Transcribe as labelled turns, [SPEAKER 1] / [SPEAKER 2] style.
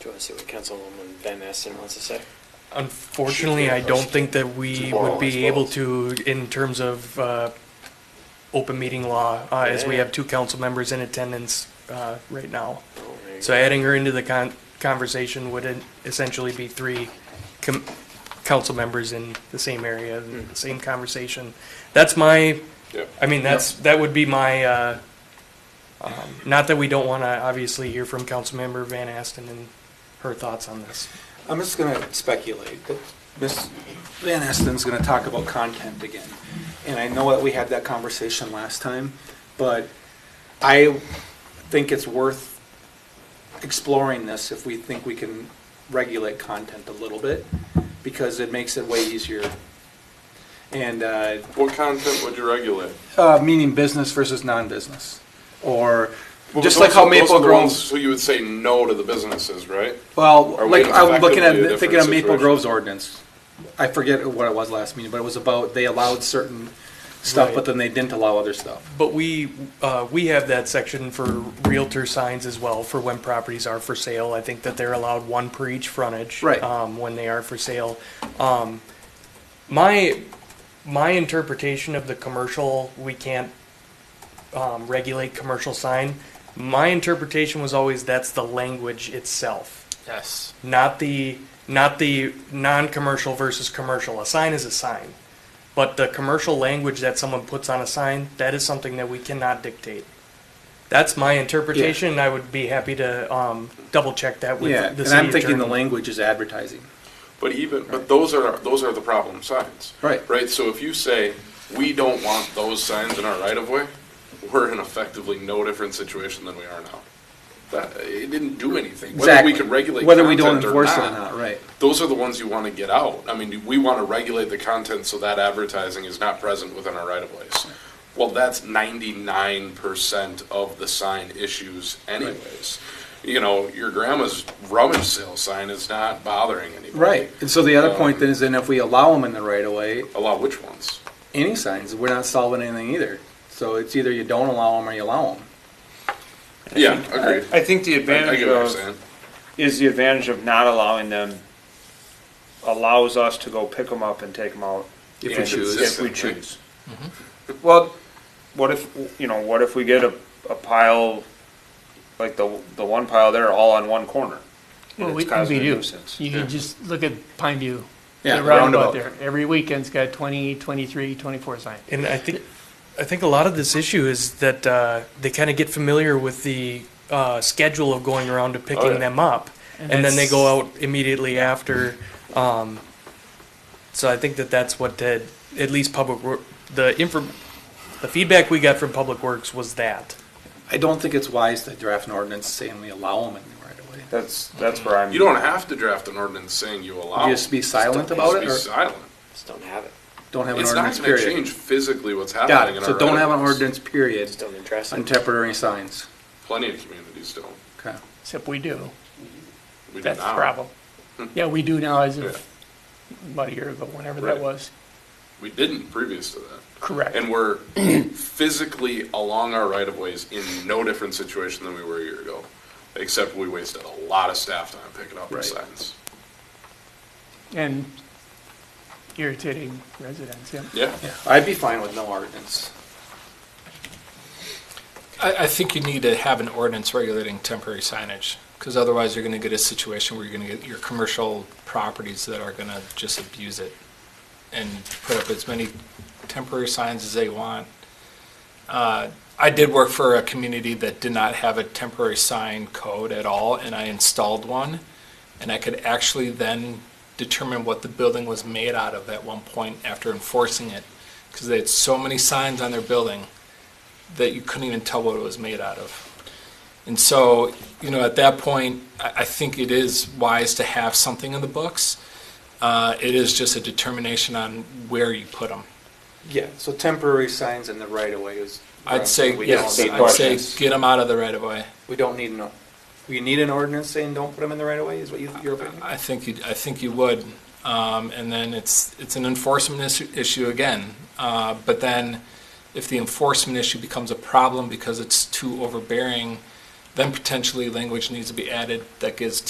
[SPEAKER 1] Do you want to see what Councilwoman Van Esten wants to say?
[SPEAKER 2] Unfortunately, I don't think that we would be able to in terms of uh, open meeting law, uh, as we have two council members in attendance uh, right now.
[SPEAKER 1] Oh, there you
[SPEAKER 2] So
[SPEAKER 1] go.
[SPEAKER 2] adding her into the con- conversation would en- essentially be three com- council members in the same area, the same conversation. That's my,
[SPEAKER 3] Hmm. Yep.
[SPEAKER 2] I mean, that's, that would be my, uh, um, not that we don't want to obviously hear from Councilmember Van Aston and her thoughts on this.
[SPEAKER 4] I'm just going to speculate, but Ms. Van Esten's going to talk about content again. And I know that we had that conversation last time, but I think it's worth exploring this if we think we can regulate content a little bit, because it makes it way easier. And, uh,
[SPEAKER 3] What content would you regulate?
[SPEAKER 4] uh, meaning business versus non-business, or
[SPEAKER 3] Well,
[SPEAKER 4] just
[SPEAKER 3] those
[SPEAKER 4] like how
[SPEAKER 3] are- those are
[SPEAKER 4] Maple
[SPEAKER 3] the
[SPEAKER 4] Groves.
[SPEAKER 3] ones Who you would say no to the businesses, right? Are
[SPEAKER 4] Well,
[SPEAKER 3] we
[SPEAKER 4] like, I'm looking
[SPEAKER 3] effectively a
[SPEAKER 4] at, thinking of
[SPEAKER 3] different
[SPEAKER 4] Maple
[SPEAKER 3] situation?
[SPEAKER 4] Grove's ordinance. I forget what it was last meeting, but it was about, they allowed certain stuff,
[SPEAKER 2] Right.
[SPEAKER 4] but then they didn't allow other stuff.
[SPEAKER 2] But we, uh, we have that section for Realtor signs as well, for when properties are for sale. I think that they're allowed one per each frontage.
[SPEAKER 4] Right.
[SPEAKER 2] Um, when they are for sale. Um, my, my interpretation of the commercial, we can't, um, regulate commercial sign. My interpretation was always that's the language itself,
[SPEAKER 1] Yes.
[SPEAKER 2] not the, not the non-commercial versus commercial. A sign is a sign. But the commercial language that someone puts on a sign, that is something that we cannot dictate. That's my interpretation, and I would be happy to um, double check that with
[SPEAKER 4] Yeah,
[SPEAKER 2] the
[SPEAKER 4] and
[SPEAKER 2] city
[SPEAKER 4] I'm thinking the
[SPEAKER 2] attorney.
[SPEAKER 4] language is advertising.
[SPEAKER 3] But even, but those are, those are the problem signs.
[SPEAKER 4] Right.
[SPEAKER 3] Right, so if you say, we don't want those signs in our right of way, we're in effectively no different situation than we are now. That, it didn't do anything, whether we
[SPEAKER 4] Exactly.
[SPEAKER 3] can regulate
[SPEAKER 4] Whether we don't
[SPEAKER 3] content or
[SPEAKER 4] enforce it or not, right.
[SPEAKER 3] Those are the ones you wanna get out, I mean, we wanna regulate the content so that advertising is not present within our right of ways. Well, that's ninety-nine percent of the sign issues anyways. You know, your grandma's rummage sale sign is not bothering anybody.
[SPEAKER 4] Right, and so the other
[SPEAKER 3] Um,
[SPEAKER 4] point then is then if we allow them in the right of way,
[SPEAKER 3] Allow which ones?
[SPEAKER 4] any signs, we're not solving anything either. So it's either you don't allow them or you allow them.
[SPEAKER 3] Yeah, agreed.
[SPEAKER 5] I think the
[SPEAKER 3] I I
[SPEAKER 5] advantage
[SPEAKER 3] get what you're saying.
[SPEAKER 5] of, is the advantage of not allowing them allows us to go pick them up and take them out.
[SPEAKER 4] If
[SPEAKER 3] Yeah,
[SPEAKER 4] we choose,
[SPEAKER 5] If we
[SPEAKER 3] Consistently.
[SPEAKER 5] choose.
[SPEAKER 3] Mm-hmm.
[SPEAKER 5] Well, what if, you know, what if we get a, a pile, like the, the one pile there, all on one corner?
[SPEAKER 6] Well,
[SPEAKER 5] It's
[SPEAKER 6] we,
[SPEAKER 5] causing
[SPEAKER 6] we
[SPEAKER 5] a
[SPEAKER 6] do.
[SPEAKER 5] nuisance.
[SPEAKER 6] You can just look at Pine View.
[SPEAKER 4] Yeah,
[SPEAKER 6] The
[SPEAKER 4] the
[SPEAKER 6] roundabout
[SPEAKER 4] roundabout.
[SPEAKER 6] there. Every weekend's got 20, 23, 24 signs.
[SPEAKER 2] And I think, I think a lot of this issue is that uh, they kind of get familiar with the uh, schedule of going around to picking
[SPEAKER 3] yeah.
[SPEAKER 2] them up, and,
[SPEAKER 6] And
[SPEAKER 2] then they
[SPEAKER 6] that's-
[SPEAKER 2] go out immediately after. Um, so I think that that's what did at least public Wor- the info, the feedback we got from Public Works was that.
[SPEAKER 4] I don't think it's wise to draft an ordinance saying we allow them in the right of way.
[SPEAKER 5] That's, that's where I'm.
[SPEAKER 3] You don't have to draft an ordinance saying you allow.
[SPEAKER 4] Just be silent
[SPEAKER 3] Just
[SPEAKER 4] about it,
[SPEAKER 3] Be
[SPEAKER 4] or
[SPEAKER 3] silent.
[SPEAKER 1] Just don't have it.
[SPEAKER 4] don't have an
[SPEAKER 3] It's not
[SPEAKER 4] ordinance
[SPEAKER 3] gonna
[SPEAKER 4] period.
[SPEAKER 3] change physically what's
[SPEAKER 4] Got
[SPEAKER 3] happening in
[SPEAKER 4] it,
[SPEAKER 3] our.
[SPEAKER 4] so don't have an
[SPEAKER 3] right-of-ways.
[SPEAKER 4] ordinance period
[SPEAKER 1] Just don't address
[SPEAKER 4] on
[SPEAKER 1] it.
[SPEAKER 4] temporary signs.
[SPEAKER 3] Plenty of communities don't.
[SPEAKER 4] Okay.
[SPEAKER 6] Except we do.
[SPEAKER 3] We do
[SPEAKER 6] That's the
[SPEAKER 3] now.
[SPEAKER 6] problem. Yeah, we do now as
[SPEAKER 3] Yeah.
[SPEAKER 6] of about a year ago, whenever
[SPEAKER 3] Right.
[SPEAKER 6] that was.
[SPEAKER 3] We didn't previous to that.
[SPEAKER 6] Correct.
[SPEAKER 3] And we're physically along our right of ways in no different situation than we were a year ago. Except we wasted a lot of staff time picking up our
[SPEAKER 4] Right.
[SPEAKER 3] signs.
[SPEAKER 6] And irritating residents, yeah.
[SPEAKER 3] Yeah.
[SPEAKER 4] Yeah, I'd be fine with no ordinance.
[SPEAKER 7] I, I think you need to have an ordinance regulating temporary signage, because otherwise you're gonna get a situation where you're gonna get your commercial properties that are gonna just abuse it and put up as many temporary signs as they want. Uh, I did work for a community that did not have a temporary sign code at all, and I installed one. And I could actually then determine what the building was made out of at one point after enforcing it, because they had so many signs on their building that you couldn't even tell what it was made out of. And so, you know, at that point, I, I think it is wise to have something in the books. Uh, it is just a determination on where you put them.
[SPEAKER 4] Yeah, so temporary signs in the right of way is.
[SPEAKER 7] I'd say,
[SPEAKER 4] We don't
[SPEAKER 7] yes,
[SPEAKER 4] need-
[SPEAKER 7] I'd say
[SPEAKER 5] ordinance.
[SPEAKER 7] get them out of the right of way.
[SPEAKER 4] We don't need no, we need an ordinance saying don't put them in the right of way, is what you, your opinion?
[SPEAKER 7] I think you, I think you would. Um, and then it's, it's an enforcement issue, issue again. Uh, but then if the enforcement issue becomes a problem because it's too overbearing, then potentially language needs to be added that gives